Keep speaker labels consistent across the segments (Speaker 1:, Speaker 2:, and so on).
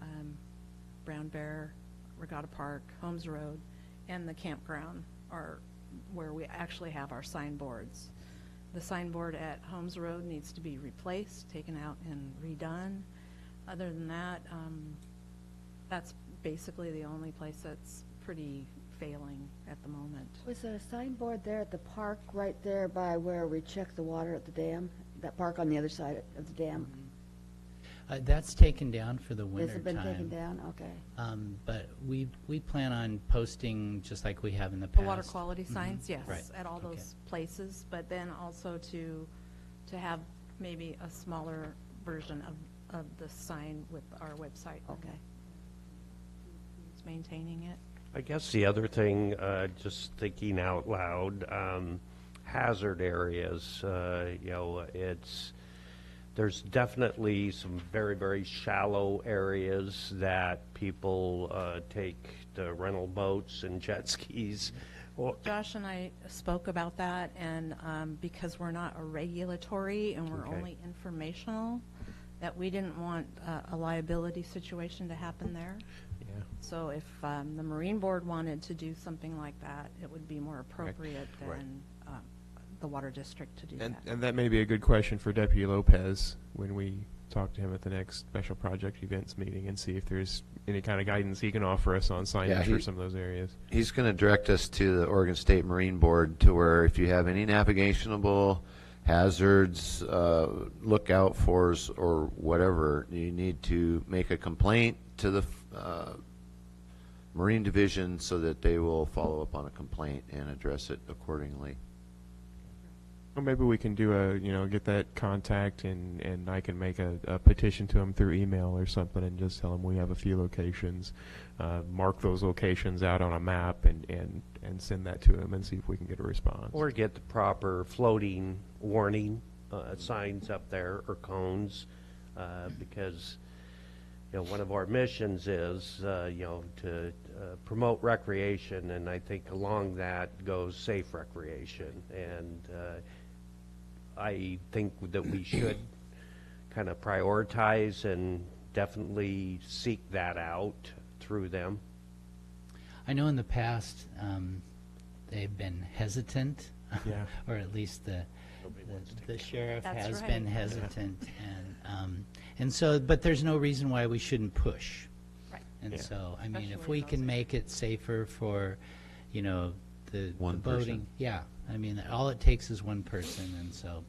Speaker 1: um, Brown Bear, Regatta Park, Holmes Road, and the campground are where we actually have our signboards. The signboard at Holmes Road needs to be replaced, taken out and redone. Other than that, um, that's basically the only place that's pretty failing at the moment.
Speaker 2: Was there a signboard there at the park, right there by where we check the water at the dam? That park on the other side of the dam?
Speaker 3: Uh, That's taken down for the
Speaker 2: Has
Speaker 3: winter
Speaker 2: it been taken
Speaker 3: time.
Speaker 2: down? Okay.
Speaker 3: Um, But we, we plan on posting just like we have in the past. Mm-hmm.
Speaker 1: The water quality signs, yes,
Speaker 3: Right,
Speaker 1: at all
Speaker 3: okay.
Speaker 1: those places, but then also to, to have maybe a smaller version of, of the sign with our website. and
Speaker 2: Okay.
Speaker 1: who's Maintaining it.
Speaker 4: I guess the other thing, uh, just thinking out loud, um, hazard areas, uh, you know, it's, there's definitely some very, very shallow areas that people uh, take the rental boats and jet skis. Well,
Speaker 1: Josh and I spoke about that, and um, because we're not a regulatory and we're
Speaker 4: Okay.
Speaker 1: only informational, that we didn't want uh, a liability situation to happen there. So if um, the Marine Board wanted to do something like that, it would be more appropriate
Speaker 4: Right.
Speaker 1: than um, the Water District to do
Speaker 5: And,
Speaker 1: that.
Speaker 5: and that may be a good question for Deputy Lopez when we talk to him at the next special project events meeting and see if there's any kind of guidance he can offer us on
Speaker 6: Yeah,
Speaker 5: signage
Speaker 6: he-
Speaker 5: for some of those areas.
Speaker 6: He's going to direct us to the Oregon State Marine Board to where if you have any navigationable hazards, uh, lookout fors or whatever, you need to make a complaint to the uh, Marine Division so that they will follow up on a complaint and address it accordingly.
Speaker 5: Or maybe we can do a, you know, get that contact and, and I can make a, a petition to him through email or something and just tell him we have a few locations. Uh, mark those locations out on a map and, and, and send that to him and see if we can get a response.
Speaker 4: Or get the proper floating warning uh, signs up there or cones, uh, because, you know, one of our missions is, uh, you know, to uh, promote recreation, and I think along that goes safe recreation. And uh, I think that we should kind of prioritize and definitely seek that out through them.
Speaker 3: I know in the past, um, they've been hesitant.
Speaker 5: Yeah.
Speaker 3: Or at least the, the- the sheriff
Speaker 1: That's
Speaker 3: has
Speaker 1: right.
Speaker 3: been hesitant. And, um, and so, but there's no reason why we shouldn't push.
Speaker 1: Right.
Speaker 3: And
Speaker 5: Yeah.
Speaker 3: so, I mean, if
Speaker 1: Especially
Speaker 3: we
Speaker 1: in
Speaker 3: can
Speaker 1: those
Speaker 3: make it safer for, you know, the the
Speaker 6: One person.
Speaker 3: boating. Yeah, I mean, all it takes is one person, and so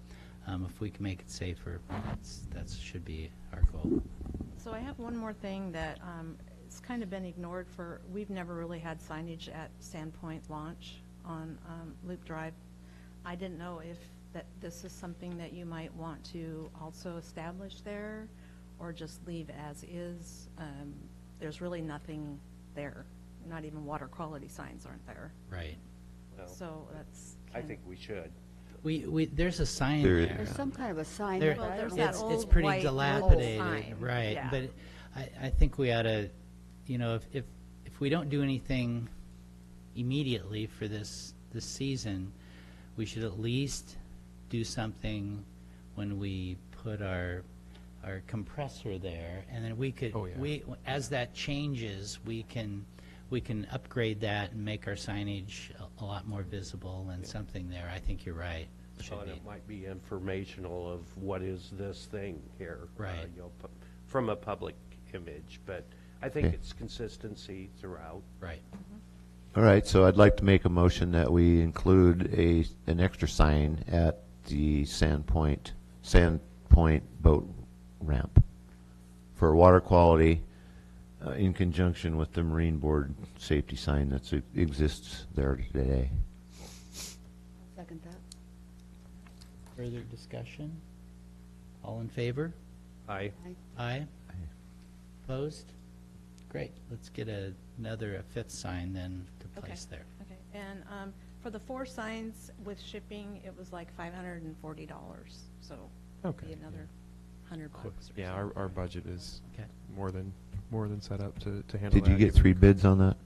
Speaker 3: um, if we can make it safer, that's- that should be our goal.
Speaker 1: So I have one more thing that um, it's kind of been ignored for, we've never really had signage at Sandpoint Launch on um, Loop Drive. I didn't know if that, this is something that you might want to also establish there, or just leave as is. Um, There's really nothing there, not even water quality signs aren't there.
Speaker 3: Right.
Speaker 1: So that's.
Speaker 4: I
Speaker 1: kind
Speaker 4: think we should.
Speaker 3: We, we, there's a sign
Speaker 6: There-
Speaker 3: there.
Speaker 2: There's some kind of a sign
Speaker 3: There-
Speaker 2: there, but I
Speaker 1: there's
Speaker 2: don't
Speaker 1: that
Speaker 2: know.
Speaker 3: it's,
Speaker 1: old
Speaker 3: it's pretty
Speaker 1: white metal sign,
Speaker 3: dilapidated, right,
Speaker 1: yeah.
Speaker 3: but I, I think we ought to, you know, if, if, if we don't do anything immediately for this, this season, we should at least do something when we put our, our compressor there, and then we could,
Speaker 5: Oh, yeah.
Speaker 3: we, as that changes, we can, we can upgrade that and make our signage a, a lot more visible and something there, I think you're right, should
Speaker 4: And
Speaker 3: be.
Speaker 4: it might be informational of what is this thing here? uh,
Speaker 3: Right.
Speaker 4: you know, pu- From a public image, but I think it's consistency throughout.
Speaker 3: Right.
Speaker 6: All right, so I'd like to make a motion that we include a, an extra sign at the Sandpoint, Sandpoint boat ramp for water quality uh, in conjunction with the Marine Board safety sign that exists there today.
Speaker 2: Second that.
Speaker 3: Further discussion? All in favor?
Speaker 4: I,
Speaker 3: Aye? Opposed? Great, let's get a- another, a fifth sign then to
Speaker 1: Okay.
Speaker 3: place there.
Speaker 1: Okay, and um, for the four signs with shipping, it was like five hundred and forty dollars, so it'd
Speaker 5: Okay,
Speaker 1: be
Speaker 5: yeah.
Speaker 1: another hundred bucks or
Speaker 5: Yeah, our,
Speaker 1: something.
Speaker 5: our budget is
Speaker 3: Okay.
Speaker 5: more than, more than set up to, to handle
Speaker 6: Did
Speaker 5: that.
Speaker 6: you get
Speaker 5: given-
Speaker 6: three bids on that?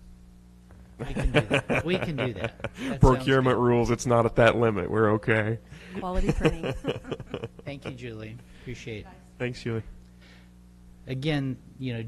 Speaker 3: We can do that. We can do that. That sounds
Speaker 5: Procurement
Speaker 3: good.
Speaker 5: rules, it's not at that limit. We're okay.
Speaker 1: Quality printing.
Speaker 3: Thank you, Julie, appreciate it.
Speaker 5: Thanks, Julie.
Speaker 3: Again, you know,